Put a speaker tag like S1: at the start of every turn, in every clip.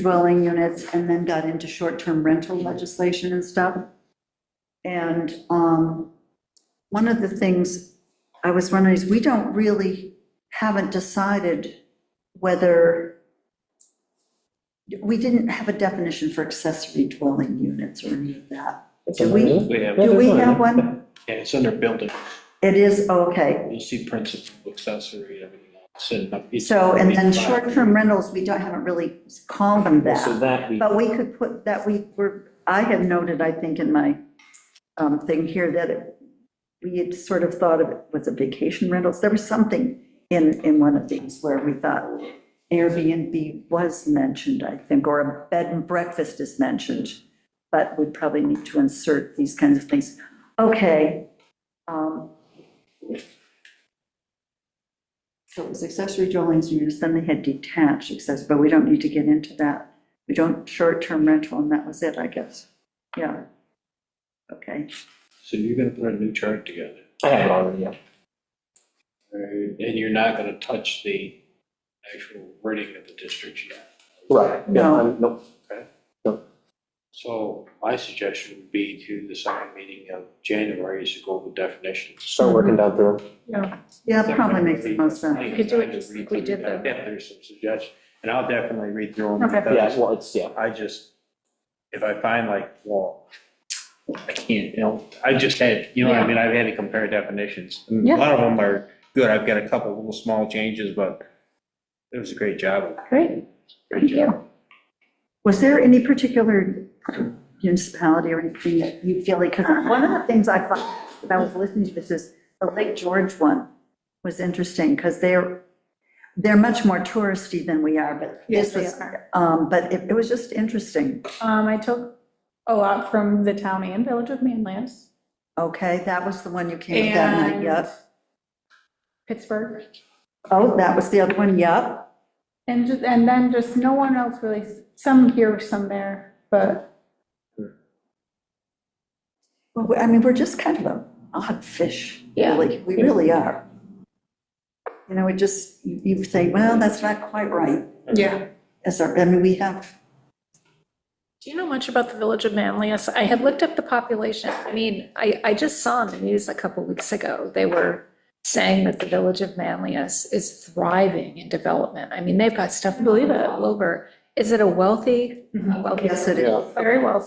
S1: dwelling units and then got into short-term rental legislation and stuff. And um, one of the things I was wondering is, we don't really, haven't decided whether, we didn't have a definition for accessory dwelling units or any of that. Do we,
S2: We have, yeah,
S1: do we have one?
S2: it's under building,
S1: It is, oh, okay.
S2: you'll see principal, accessory, everything else. and up- it's-
S1: So, and then short-term rentals, we don't, haven't really called them that.
S3: So that we,
S1: But we could put, that we were, I had noted, I think, in my um, thing here, that it- we had sort of thought of it was a vacation rentals. There was something in, in one of these where we thought Airbnb was mentioned, I think, or a bed and breakfast is mentioned, but we probably need to insert these kinds of things. Okay. um, So it was accessory dwellings units, then they had detached accessory, but we don't need to get into that. We don't short-term rental, and that was it, I guess. Yeah. Okay.
S2: So you're gonna put a new chart together,
S3: I have it already, yeah.
S2: and you're not gonna touch the actual wording of the district yet.
S3: Right, yeah,
S1: No.
S3: I'm, nope,
S2: So my suggestion would be to the second meeting of January is to go over definitions.
S3: start working down through.
S1: Yeah, it probably makes the most sense.
S2: We
S4: could do it just like we did the-
S2: There's some suggestions, and I'll definitely read through them.
S4: Okay.
S3: Yeah,
S2: because
S3: well, it's, yeah,
S2: I just, if I find like, well, I can't, you know, I just had, you know what I
S4: Yeah.
S2: mean, I've had to compare definitions. And
S4: Yeah.
S2: a lot of them are good, I've got a couple little small changes, but it was a great job,
S4: Great,
S2: great
S4: Thank you.
S2: job.
S1: Was there any particular municipality or anything that you feel like, because one of the things I thought, when I was listening to this, is the Lake George one was interesting, because they're, they're much more touristy than we are, but this
S4: Yes, they
S1: was,
S4: are.
S1: um, but it, it was just interesting.
S4: Um, I took a lot from the town and village of Manlius
S1: Okay, that was the one you came with that night,
S4: And-
S1: yep.
S4: Pittsburgh.
S1: Oh, that was the other one, yep.
S4: And, ju- and then just no one else really, some here, some there, but
S1: Well, we- I mean, we're just kind of an odd fish,
S4: Yeah.
S1: really. We really are. You know, it just, you you say, well, that's not quite right.
S4: yeah.
S1: As our, I mean, we have,
S5: Do you know much about the village of Manlius? I had looked up the population. I mean, I, I just saw in the news a couple weeks ago, they were saying that the village of Manlius is thriving in development. I mean, they've got stuff
S4: Believe it.
S5: all over. Is it a wealthy,
S4: Mhm.
S5: wealthy?
S1: Mm-hmm. yes, it is.
S4: Very well.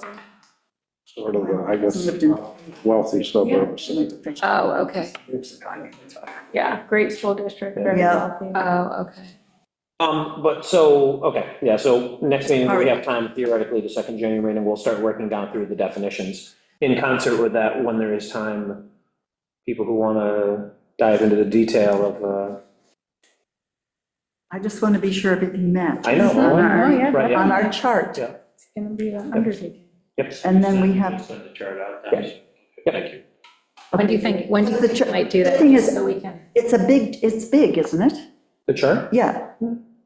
S6: sort of, uh, I guess,
S1: Lived in-
S6: wealthy suburbs.
S5: Oh, okay.
S4: Yeah, great school district, very
S1: Yeah.
S4: healthy.
S5: Oh, okay.
S3: Um, but so, okay, yeah, so next meeting, we
S1: Alright.
S3: have time theoretically the second January, and we'll start working down through the definitions. In concert with that, when there is time, people who want to dive into the detail of, uh,
S1: I just want to be sure everything matches.
S3: I know.
S1: On
S5: Mm-hmm.
S1: our-
S4: Oh, yeah,
S3: Right, yeah.
S1: On our chart.
S3: Yeah.
S4: It's gonna be an undertaking.
S3: yep,
S1: And then we have,
S2: Send the chart out, thanks.
S3: Yeah.
S2: Thank you.
S5: When do you think, when do you
S1: The
S5: think
S1: tr-
S5: you might do that?
S1: the thing is-
S5: So we can.
S1: it's a big, it's big, isn't it?
S3: the chart.
S1: Yeah.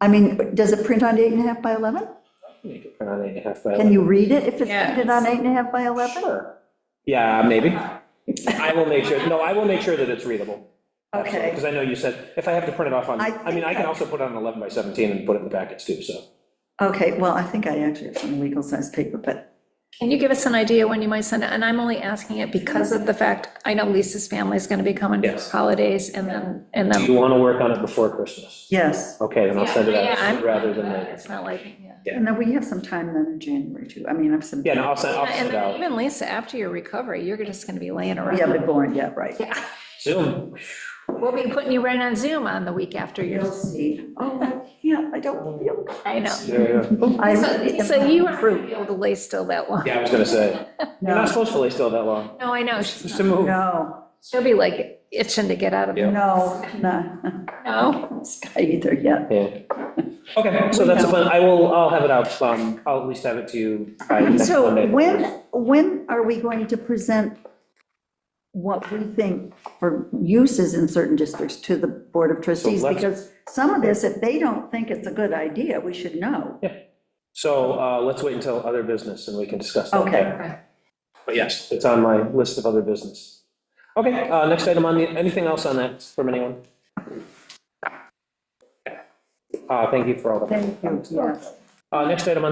S1: I mean, does it print on eight and a half by 11?
S3: You can print on eight and a half by
S1: Can you read it if it's
S5: Yeah.
S1: printed on eight and a half by 11?
S3: Sure. Yeah, maybe. I will make sure, no, I will make sure that it's readable.
S1: Okay.
S3: Because I know you said, if I have to print it off on,
S1: I
S3: I mean, I can also put it on 11 by 17 and put it in the packets too, so.
S1: Okay, well, I think I actually have some legal size paper, but
S5: Can you give us an idea when you might send it? And I'm only asking it because of the fact, I know Lisa's family is going to be coming for
S3: Yes.
S5: holidays and then, and
S3: Do
S5: then.
S3: you want to work on it before Christmas?
S1: yes.
S3: Okay, then I'll send it
S5: Yeah, I'm-
S3: out rather than later.
S5: It's not like, yeah.
S1: And then we have some time then in January too. I mean, I'm some.
S3: Yeah, no, I'll send, I'll
S5: And
S3: send it
S5: then
S3: out
S5: even Lisa, after your recovery, you're just gonna be laying
S1: Yeah,
S5: around.
S1: but born, yeah, right.
S5: Yeah.
S3: soon.
S5: We'll be putting you right on Zoom on the week after
S1: You'll
S5: your,
S1: see. Oh, I can't, I don't feel.
S5: I know.
S3: Oh.
S1: I
S5: So
S1: really
S5: so you
S1: am-
S5: aren't gonna be able to lay still that long.
S3: Yeah, I was going to say, you're
S1: No,
S3: not supposed to lay still that long.
S5: No, I know.
S3: Just
S5: Oh, She's
S3: to
S5: not-
S3: move.
S1: no,
S5: She'll be like itching to get out of
S3: Yeah.
S5: it.
S1: no, no,
S5: No.
S1: Sky either, yeah.
S3: Yeah. Okay, so that's a plan. I will, I'll have it out, um, I'll at least have it to you by next
S1: So
S3: Monday.
S1: when, when are we going to present what we think for uses in certain districts to the Board of Trustees?
S3: let's-
S1: Because some of this, if they don't think it's a good idea, we should know.
S3: So uh, let's wait until other business and we can discuss that.
S1: Okay.
S3: But yes, it's on my list of other business. Okay, uh, next item on the, anything else on that from anyone? Uh, Thank you for all the.
S1: Thank you, yes.
S3: Uh, Next item on